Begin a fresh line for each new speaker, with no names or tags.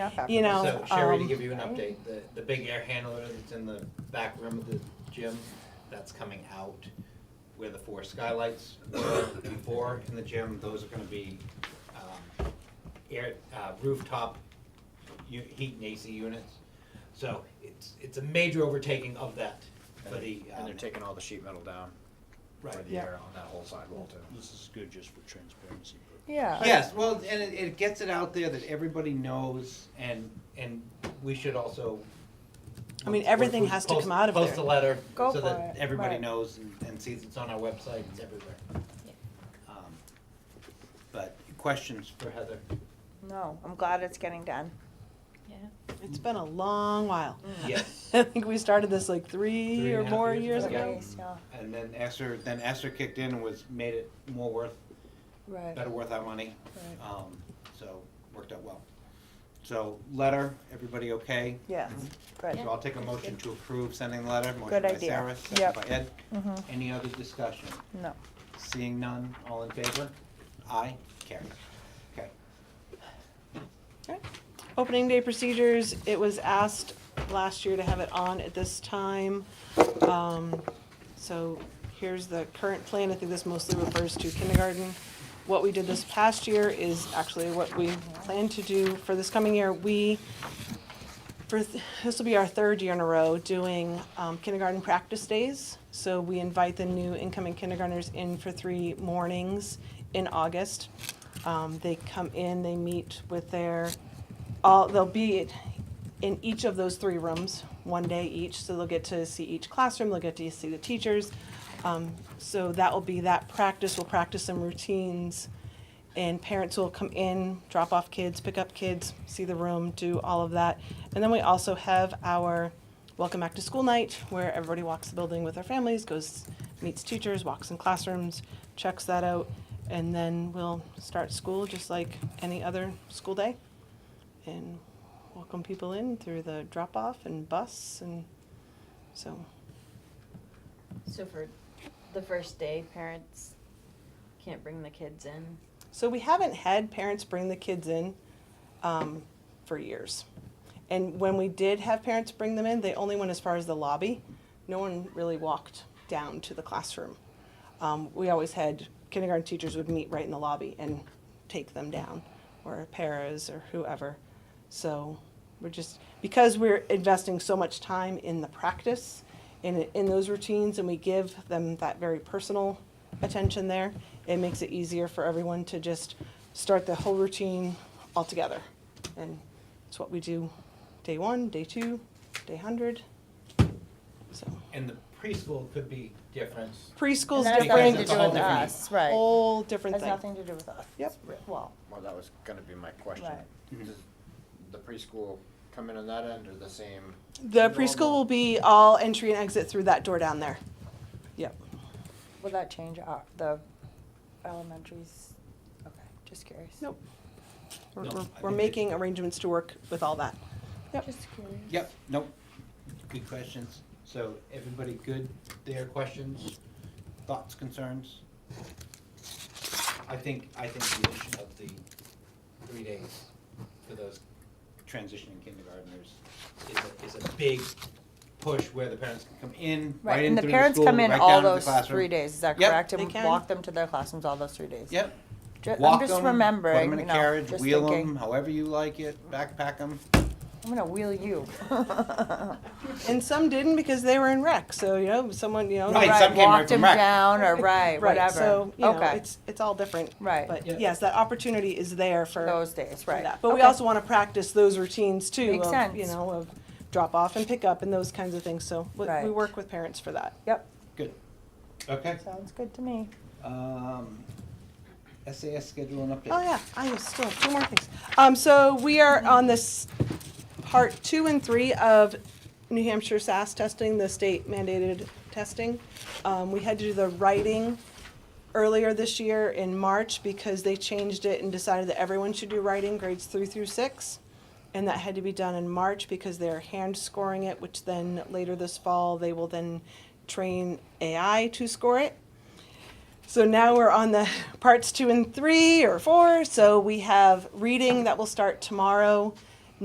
you know.
So Sherry, to
um,
give you an update, the, the big air handler that's in the back room of the gym, that's coming out. Where the four skylights were before in the gym, those are gonna be, um, air, uh, rooftop u- heat and AC units. So it's, it's a major overtaking of that for the,
And they're
um,
taking all the sheet metal down for
Right.
the
Yeah.
air on that whole sidewall too.
This is good just for transparency. but-
Yeah.
Yes, well, and it, it gets it out there that everybody knows and, and we should also.
I mean, everything has to
Post-
come out of
Post a
there.
letter
Go
so that
for it,
everybody
right.
knows and- and sees it's on our website, it's everywhere. Um, But questions for Heather?
No, I'm glad it's getting done.
Yeah.
It's been a long while.
Yes.
I think we started this like three
Three
or
and a half
more years
years
ago.
ago. And then Esther, then Esther kicked in and was, made it more worth,
Right.
better worth our money.
Right.
Um, So, worked out well. So, letter, everybody okay?
Yes, good.
So I'll take a motion to approve sending the letter, motion
Good
by
idea.
Sarah, second
Yep.
by Ed.
Mhm.
Any other discussion?
No.
Seeing none, all in favor? Aye, carry. Okay,
Opening day procedures, it was asked last year to have it on at this time. Um, So here's the current plan. I think this mostly refers to kindergarten. What we did this past year is actually what we plan to do for this coming year. We, for, th- this will be our third year in a row, doing um, kindergarten practice days. So we invite the new incoming kindergartners in for three mornings in August. Um, They come in, they meet with their all, they'll be in each of those three rooms, one day each, so they'll get to see each classroom, they'll get to see the teachers. Um, so that will be that practice, we'll practice some routines, and parents will come in, drop off kids, pick up kids, see the room, do all of that. And then we also have our welcome back to school night, where everybody walks the building with their families, goes, meets teachers, walks in classrooms, checks that out, and then we'll start school just like any other school day and welcome people in through the drop off and bus and so
So for the first day, parents can't bring the kids in.
so we haven't had parents bring the kids in um, for years and when we did have parents bring them in they only went as far as the lobby no one really walked down to the classroom um, we always had kindergarten teachers would meet right in the lobby and take them down or paras or whoever so we're just because we're investing so much time in the practice in, in those routines and we give them that very personal attention there it makes it easier for everyone to just start the whole routine all together and it's what we do day one day two day 100 so
and the preschool could be different.
preschool's
has
different
nothing to
it's
do
a
with
whole different-
us,
right.
whole different
Has
thing
nothing to do with us.
Yep.
Well,
Well, that was gonna be my question.
Right.
Mm-hmm.
Does the preschool come in on that end or the same?
The preschool will be all entry and exit through that door down there. Yep.
will that change our, the elementaries? Okay, just curious.
Nope. We're,
No,
we're,
I think
we're
it-
making arrangements to work with all that. Yep.
Just curious.
Yep, nope, good questions. So, everybody good there, questions, thoughts, concerns? I think, I think the addition of the three days for those transitioning kindergartners is a, is a big push where the parents can come in, right
Right,
in
and the
through the
parents
school,
come in
right
all
down to the
those
classroom.
three days, is that
Yep.
correct?
They
And
can.
walk them to their classrooms all those three days?
Yep.
Ju- I'm
Walk
just
'em, Put them
remembering,
in
you
a
know,
carriage,
just
wheel them,
thinking,
however you like it, backpack them.
I'm gonna wheel you.
And some didn't because they were in rec. So, you know, someone, you know.
Right, some came right
Walked
from
them
rec.
down, or right,
Right,
whatever,
so, you know,
okay,
it's, it's all different.
Right.
But
Yeah.
yes, that opportunity is there for.
those days,
for
right.
that. But we
Okay.
also want to practice those routines too.
Makes
of, You
sense.
know, of drop off and pick up and those kinds of things. So we, we
Right.
work with parents for that.
Yep,
Good. Okay.
sounds good to me.
Um, SAS schedule and update.
Oh yeah, I have still two more things. Um, so we are on this part two and three of New Hampshire SAS testing, the state mandated testing. Um, we had to do the writing earlier this year in March because they changed it and decided that everyone should do writing grades three through six. And that had to be done in March because they're hand scoring it, which then later this fall, they will then train AI to score it. So now we're on the parts two and three or four. So we have reading that will start tomorrow.